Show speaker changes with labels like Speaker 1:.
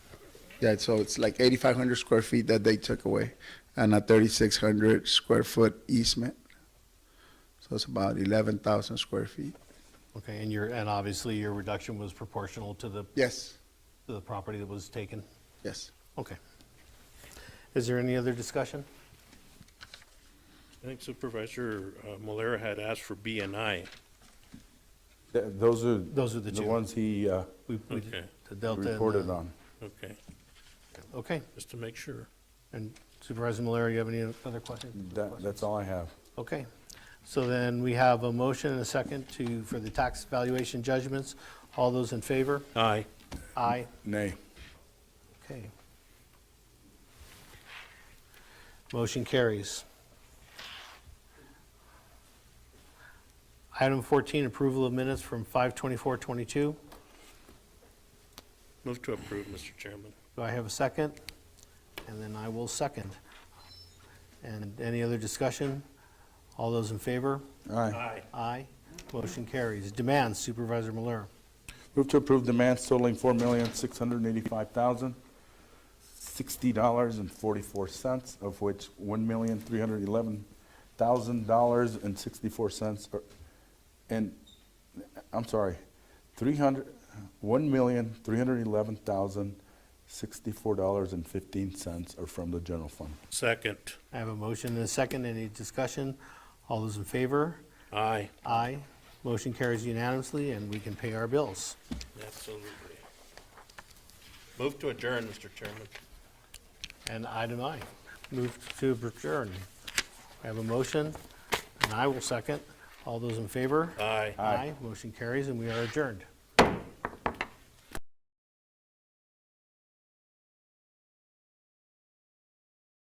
Speaker 1: Yeah, so it's like 8,500 square feet that they took away and a 3,600 square foot easement. So it's about 11,000 square feet.
Speaker 2: Okay, and your, and obviously your reduction was proportional to the,
Speaker 1: Yes,
Speaker 2: to the property that was taken?
Speaker 1: yes.
Speaker 2: Okay. Is there any other discussion?
Speaker 3: I think Supervisor uh, Malera had asked for B and I.
Speaker 4: Th- Those are.
Speaker 2: Those are the two. uh,
Speaker 4: The ones he uh,
Speaker 2: We- we did
Speaker 3: Okay.
Speaker 2: The delta. and the-
Speaker 4: reported on.
Speaker 3: Okay,
Speaker 2: Okay,
Speaker 3: just to make sure.
Speaker 2: and Supervisor Malera, you have any other questions?
Speaker 4: That, that's all I have.
Speaker 2: Okay, so then we have a motion and a second to, for the tax valuation judgments. All those in favor?
Speaker 3: Aye.
Speaker 2: Aye.
Speaker 4: Nay.
Speaker 2: Okay. Motion carries. Item 14, approval of minutes from 5:24:22.
Speaker 3: Move to approve, Mr. Chairman.
Speaker 2: Do I have a second? And then I will second. And any other discussion? All those in favor?
Speaker 4: Aye.
Speaker 2: Aye. Motion carries. Demands Supervisor Malera.
Speaker 4: Move to approve demands totaling four million, six hundred and eighty-five thousand, sixty dollars and forty-four cents, of which one million, three hundred and eleven thousand dollars and sixty-four cents are, and, I'm sorry, three hundred, one million, three hundred and eleven thousand, sixty-four dollars and fifteen cents are from the general fund.
Speaker 3: Second.
Speaker 2: I have a motion and a second. Any discussion? All those in favor?
Speaker 3: Aye.
Speaker 2: Aye. Motion carries unanimously, and we can pay our bills.
Speaker 3: Absolutely. Move to adjourn, Mr. Chairman.
Speaker 2: And item I, move to adjourn. I have a motion, and I will second. All those in favor?
Speaker 3: Aye.
Speaker 2: Aye. Motion carries, and we are adjourned.